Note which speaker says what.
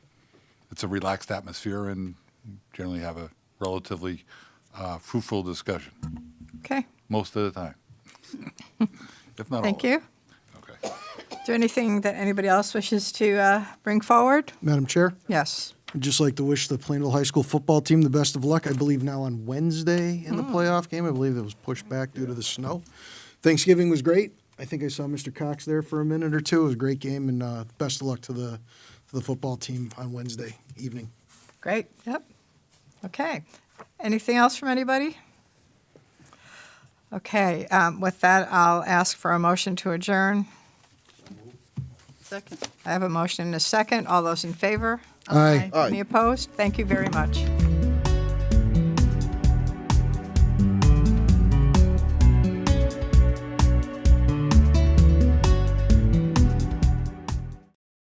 Speaker 1: it's a relaxed atmosphere and generally have a relatively uh, fruitful discussion
Speaker 2: Okay,
Speaker 1: most of the time. if not
Speaker 2: thank
Speaker 1: all.
Speaker 2: you.
Speaker 1: Thank you. Okay.
Speaker 2: Is there anything that anybody else wishes to uh, bring forward?
Speaker 3: Madam Chair,
Speaker 2: Yes.
Speaker 3: I'd just like to wish the Plainville High School football team the best of luck. I believe now on Wednesday in the playoff game. I believe it was pushed back due to the snow. Thanksgiving was great. I think I saw Mr. Cox there for a minute or two. It was a great game, and uh, best of luck to the to the football team on Wednesday evening.
Speaker 2: Great, yep. Okay. Anything else from anybody? Okay, um, with that, I'll ask for a motion to adjourn.
Speaker 4: Second.
Speaker 2: I have a motion and a second. All those in favor?
Speaker 3: Aye.
Speaker 4: Aye.
Speaker 2: Any opposed? Thank you very much.